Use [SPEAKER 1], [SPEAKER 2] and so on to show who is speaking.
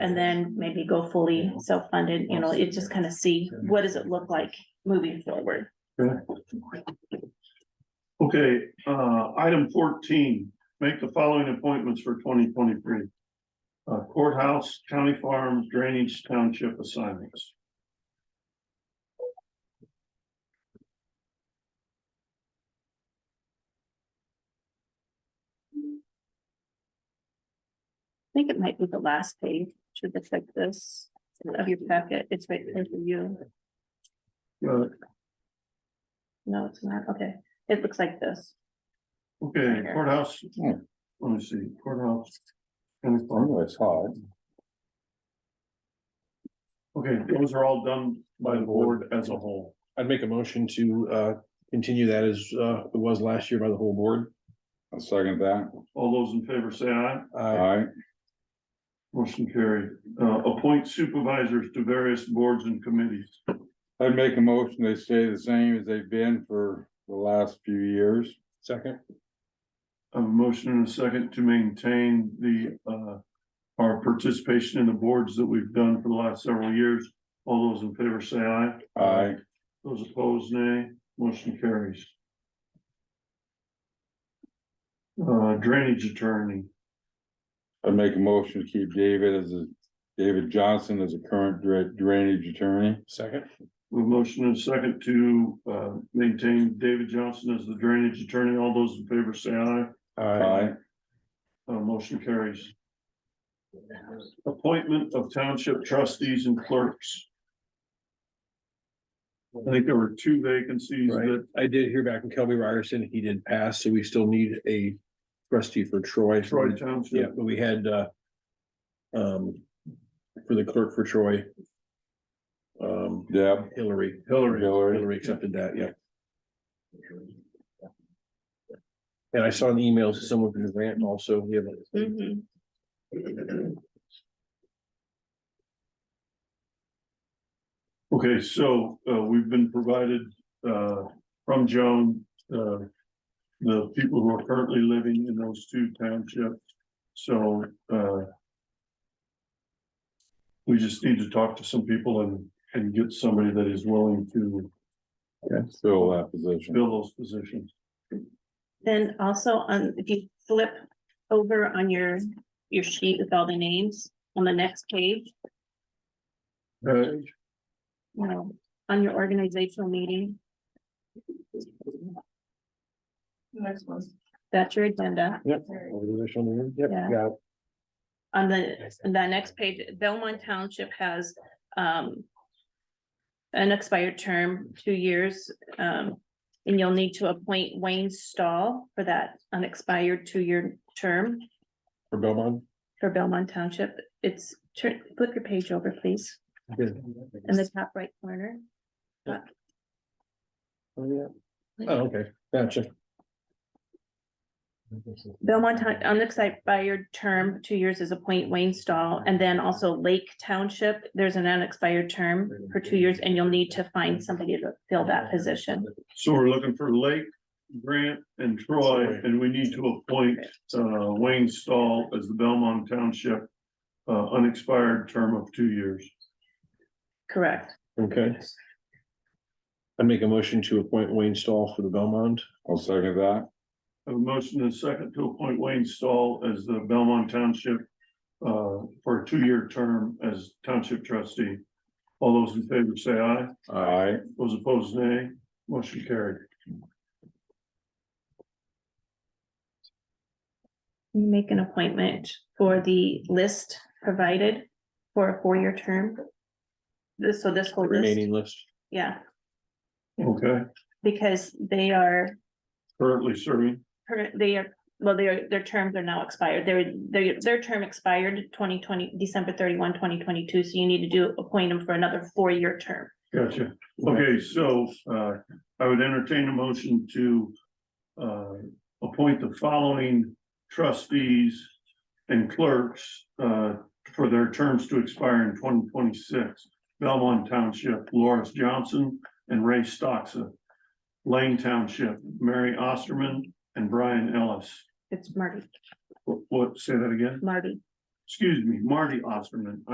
[SPEAKER 1] And then maybe go fully self-funded, you know, it just kind of see what does it look like moving forward.
[SPEAKER 2] Okay, uh, item fourteen, make the following appointments for twenty twenty-three. Uh, Courthouse, county farm, drainage, township assignments.
[SPEAKER 1] I think it might be the last page, should just like this, of your packet, it's right there for you.
[SPEAKER 2] Uh,
[SPEAKER 1] No, it's not, okay, it looks like this.
[SPEAKER 2] Okay, courthouse, oh,
[SPEAKER 3] Hmm.
[SPEAKER 2] let me see, courthouse. County
[SPEAKER 3] I
[SPEAKER 2] farm,
[SPEAKER 3] knew I saw it.
[SPEAKER 2] okay, those are all done by the board as a whole.
[SPEAKER 4] I'd make a motion to uh continue that as uh it was last year by the whole board.
[SPEAKER 3] I'll second that.
[SPEAKER 2] All those in favor say aye,
[SPEAKER 4] Uh,
[SPEAKER 3] Aye.
[SPEAKER 2] motion carried. Uh, appoint supervisors to various boards and committees.
[SPEAKER 3] I'd make a motion, they stay the same as they've been for the last few years.
[SPEAKER 4] second,
[SPEAKER 2] A motion and a second to maintain the, uh, our participation in the boards that we've done for the last several years. All those in favor say aye.
[SPEAKER 3] Aye.
[SPEAKER 2] Those opposed, nay. Motion carries. Uh, drainage attorney,
[SPEAKER 3] I'd make a motion to keep David as a, David Johnson as a current dra- drainage attorney.
[SPEAKER 4] second,
[SPEAKER 2] a motion and a second to, uh, maintain David Johnson as the drainage attorney. All those in favor say aye.
[SPEAKER 4] uh,
[SPEAKER 3] Aye.
[SPEAKER 2] Uh, motion carries. Appointment of township trustees and clerks. I think there were two vacancies
[SPEAKER 4] right.
[SPEAKER 2] that
[SPEAKER 4] I did hear back from Kelby Ryerson. He did pass, so we still need a trustee for Troy.
[SPEAKER 2] Troy
[SPEAKER 4] Yeah,
[SPEAKER 2] Township,
[SPEAKER 4] but we had uh um for the clerk for Troy. Um,
[SPEAKER 3] Deb,
[SPEAKER 4] Hillary,
[SPEAKER 2] Hillary.
[SPEAKER 3] Hillary,
[SPEAKER 4] Hillary accepted that, yeah. And I saw an email to someone from Grant also, we have a
[SPEAKER 5] Mm-hmm.
[SPEAKER 1] Mhm.
[SPEAKER 2] Okay, so, uh, we've been provided, uh, from Joan, uh, the people who are currently living in those two townships, so, uh, we just need to talk to some people and, and get somebody that is willing to
[SPEAKER 3] fill that position.
[SPEAKER 2] fill those positions.
[SPEAKER 1] Then also on, if you flip over on your, your sheet with all the names, on the next page,
[SPEAKER 2] Right.
[SPEAKER 1] you know, on your organizational meeting.
[SPEAKER 5] Next one.
[SPEAKER 1] That's your agenda.
[SPEAKER 4] organizational, yep,
[SPEAKER 1] Yeah.
[SPEAKER 4] got it.
[SPEAKER 1] On the, the next page, Belmont Township has, um. An expired term, two years, um, and you'll need to appoint Wayne Stahl for that unexpired two-year term
[SPEAKER 4] for Belmont.
[SPEAKER 1] for Belmont Township. It's, turn, flip your page over, please, in the top right corner.
[SPEAKER 4] Oh, okay, gotcha.
[SPEAKER 1] Belmont Town, unexpired term, two years is appoint Wayne Stahl, and then also Lake Township, there's an unexpired term for two years, and you'll need to find somebody to fill that position.
[SPEAKER 2] So we're looking for Lake, Grant and Troy, and we need to appoint uh Wayne Stahl as the Belmont Township. Uh unexpired term of two years.
[SPEAKER 1] Correct.
[SPEAKER 4] Okay. I make a motion to appoint Wayne Stahl for the Belmont.
[SPEAKER 3] I'll second that.
[SPEAKER 2] I have A motion and a second to appoint Wayne Stahl as the Belmont Township. Uh for a two-year term as township trustee. All those in favor say aye,
[SPEAKER 3] Aye.
[SPEAKER 2] those opposed nay, motion carried.
[SPEAKER 1] Make an appointment for the list provided for a four-year term. This, so this whole list,
[SPEAKER 4] Remaining list.
[SPEAKER 1] yeah,
[SPEAKER 2] Okay,
[SPEAKER 1] because they are,
[SPEAKER 2] currently serving,
[SPEAKER 1] per- they are, well, their, their terms are now expired. Their, their, their term expired twenty twenty, December 31, 2022. so you need to do, appoint them for another four-year term.
[SPEAKER 2] gotcha. Okay, so uh I would entertain a motion to uh appoint the following trustees and clerks uh for their terms to expire in twenty twenty-six. Belmont Township, Lawrence Johnson and Ray Stoxa. Lane Township, Mary Osterman and Brian Ellis.
[SPEAKER 1] It's Marty,
[SPEAKER 2] What- What, say that again?
[SPEAKER 1] Marty.
[SPEAKER 2] Excuse me, Marty Osterman.